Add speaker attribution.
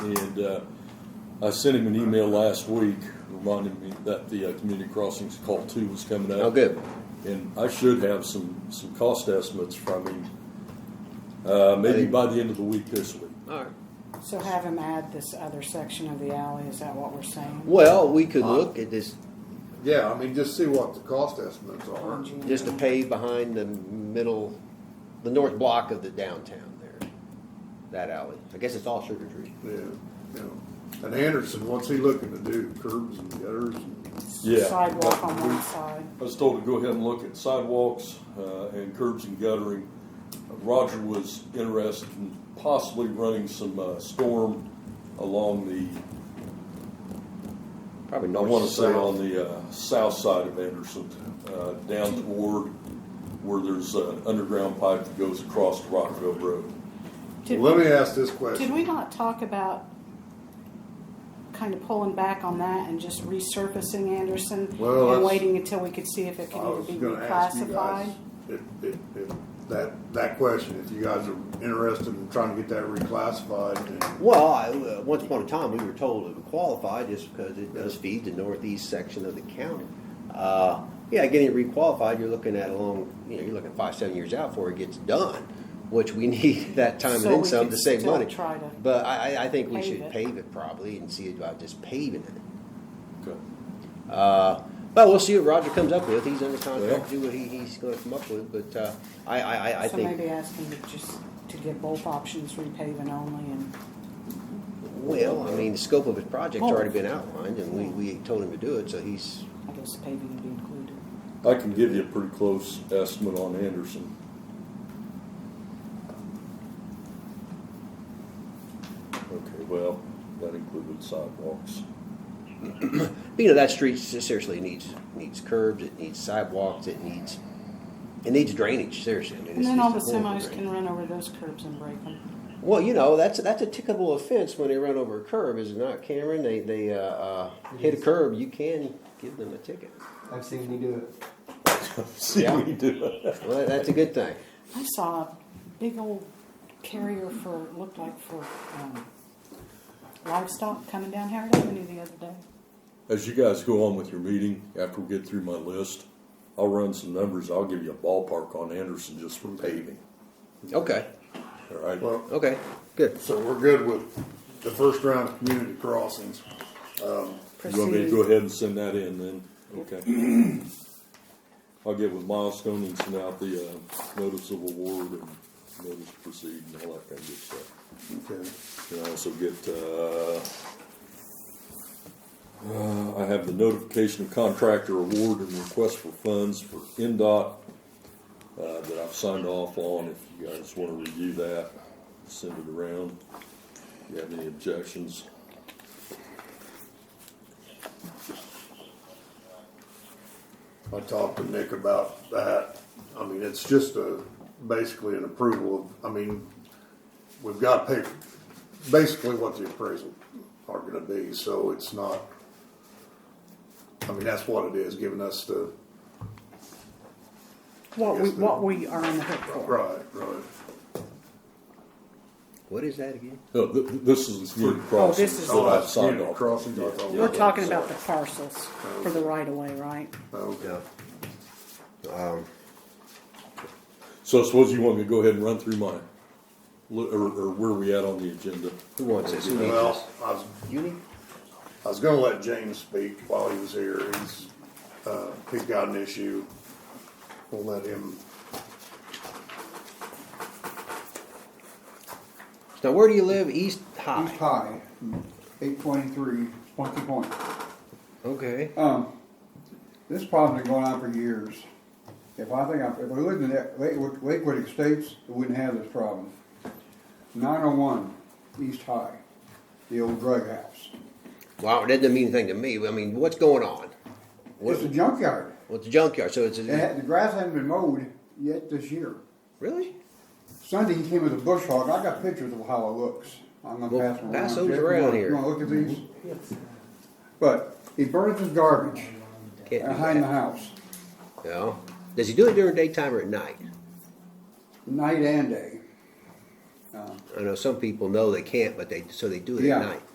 Speaker 1: And uh, I sent him an email last week reminding me that the uh, community crossings call two was coming
Speaker 2: Oh,
Speaker 1: out.
Speaker 2: good.
Speaker 1: And I should have some, some cost estimates from him, uh, maybe by the end of the week this week.
Speaker 2: All right.
Speaker 3: So have him add this other section of the alley, is that what we're saying?
Speaker 2: Well, we could look at this,
Speaker 4: Yeah, I mean, just see what the cost estimates are.
Speaker 2: just to pave behind the middle, the north block of the downtown there, that alley. I guess it's all Sugar Tree.
Speaker 4: Yeah, yeah. And Anderson, what's he looking to do? Curbs and gutters and,
Speaker 1: Yeah.
Speaker 3: Sidewalk on one side.
Speaker 1: I was told to go ahead and look at sidewalks uh, and curbs and guttering. Roger was interested in possibly running some uh, storm along the,
Speaker 2: Probably
Speaker 1: I
Speaker 2: north.
Speaker 1: want
Speaker 2: to
Speaker 1: to say on
Speaker 2: south.
Speaker 1: the uh, south side of Anderson, uh, down toward where there's an underground pipe that goes across to Rockville Road.
Speaker 3: Did-
Speaker 4: let me ask this
Speaker 3: Did
Speaker 4: question.
Speaker 3: we not talk about kind of pulling back on that and just resurfacing Anderson?
Speaker 4: Well,
Speaker 3: And
Speaker 4: that's-
Speaker 3: waiting until we could see if it
Speaker 4: I
Speaker 3: can
Speaker 4: was
Speaker 3: either be
Speaker 4: gonna ask you guys
Speaker 3: reclassified?
Speaker 4: if, if, if that, that question, if you guys are interested in trying to get that reclassified and,
Speaker 2: Well, I, uh, once upon a time, we were told it would qualify just because it does feed the northeast section of the county. Uh, yeah, getting it requalified, you're looking at a long, you know, you're looking five, seven years out before it gets done, which we need that time and
Speaker 3: So
Speaker 2: then
Speaker 3: we
Speaker 2: some
Speaker 3: could
Speaker 2: to save
Speaker 3: still
Speaker 2: money.
Speaker 3: try to
Speaker 2: But I, I- I think we
Speaker 3: pave
Speaker 2: should
Speaker 3: it.
Speaker 2: pave it probably and see about just paving it.
Speaker 1: Okay.
Speaker 2: Uh, but we'll see what Roger comes up with. He's under contract to
Speaker 1: Yeah.
Speaker 2: do what he, he's gonna come up with, but, uh, I, I, I, I
Speaker 3: So
Speaker 2: think,
Speaker 3: maybe ask him to just, to get both options, repaving only and,
Speaker 2: well, I mean, the scope of his project's
Speaker 3: Oh.
Speaker 2: already been outlined and we, we told him to do it, so he's,
Speaker 3: I guess paving would be included.
Speaker 1: I can give you a pretty close estimate on Anderson. Okay, well, that included sidewalks.
Speaker 2: you know, that street seriously needs, needs curbs, it needs sidewalks, it needs, it needs drainage, seriously. I mean,
Speaker 3: And
Speaker 2: it's-
Speaker 3: then all the
Speaker 2: it's horrible
Speaker 3: semis
Speaker 2: drainage.
Speaker 3: can run over those curbs and break them.
Speaker 2: Well, you know, that's, that's a tickable offense when they run over a curb, is it not, Cameron? They, they, uh, uh, hit a
Speaker 5: is.
Speaker 2: curb, you can give them a ticket.
Speaker 5: I've seen you do it.
Speaker 1: See what you do.
Speaker 2: Well, that's a good thing.
Speaker 3: I saw a big old carrier for, looked like for um, livestock coming down Howard Avenue the other day.
Speaker 1: As you guys go on with your meeting, after we get through my list, I'll run some numbers. I'll give you a ballpark on Anderson just for paving,
Speaker 2: Okay,
Speaker 1: all right?
Speaker 4: well,
Speaker 2: okay, good.
Speaker 4: so we're good with the first round of community crossings.
Speaker 1: You want me to go ahead and send that in then? Okay. I'll get with Milestone and send out the, uh, notice of award and notice to proceed and all that kind of good stuff.
Speaker 4: Okay.
Speaker 1: Can I also get, uh, uh, I have the notification of contractor award and request for funds for NDOT, uh, that I've signed off on, if you guys wanna review that, send it around. If you have any objections,
Speaker 4: I talked to Nick about that. I mean, it's just a, basically an approval of, I mean, we've got to pay basically what the appraisal are gonna be, so it's not, I mean, that's what it is, giving us the,
Speaker 3: What we,
Speaker 4: Yes, ma'am.
Speaker 3: what we are on the hook for.
Speaker 4: right, right.
Speaker 2: What is that again?
Speaker 1: no, th- th- this is the community
Speaker 3: Oh, this
Speaker 1: crossings
Speaker 3: is-
Speaker 1: that I've signed off.
Speaker 4: Crossing, I thought.
Speaker 3: We're talking about the parcels for the right of way, right?
Speaker 4: Okay.
Speaker 1: So I suppose you want me to go ahead and run through mine, Lo- or, or where we at on the agenda?
Speaker 2: Who wants this? Who needs this?
Speaker 4: Well, I was
Speaker 2: You need?
Speaker 4: I was gonna let James speak while he was here. He's, uh, he's got an issue. We'll let him,
Speaker 2: Now, where do you live? East High.
Speaker 5: East High, eight twenty-three, point to point.
Speaker 2: Okay.
Speaker 5: Um, this problem's been going on for years. If I think, I- if we lived in that Lakewood, Lakewood Estates, we wouldn't have this problem. Nine oh one, East High, the old drug house.
Speaker 2: Wow, that doesn't mean anything to me. I mean, what's going on? What,
Speaker 5: It's a junkyard.
Speaker 2: what's a junkyard? So it's
Speaker 5: It
Speaker 2: a,
Speaker 5: had, the grass hadn't been mowed yet this year.
Speaker 2: really?
Speaker 5: Sunday he came with a bush hog. I got pictures of how it looks. I'm gonna
Speaker 2: Well,
Speaker 5: pass them around.
Speaker 2: pass those
Speaker 5: Jeff, you
Speaker 2: around
Speaker 5: wanna-
Speaker 2: here. Mm-hmm.
Speaker 5: You wanna look at these? But he burns his garbage
Speaker 2: Can't do
Speaker 5: behind the
Speaker 2: that.
Speaker 5: house,
Speaker 2: No. Does he do it during daytime or at night?
Speaker 5: night and day. Um,
Speaker 2: I know some people know they can't, but they, so they do it
Speaker 5: Yeah.
Speaker 2: at night.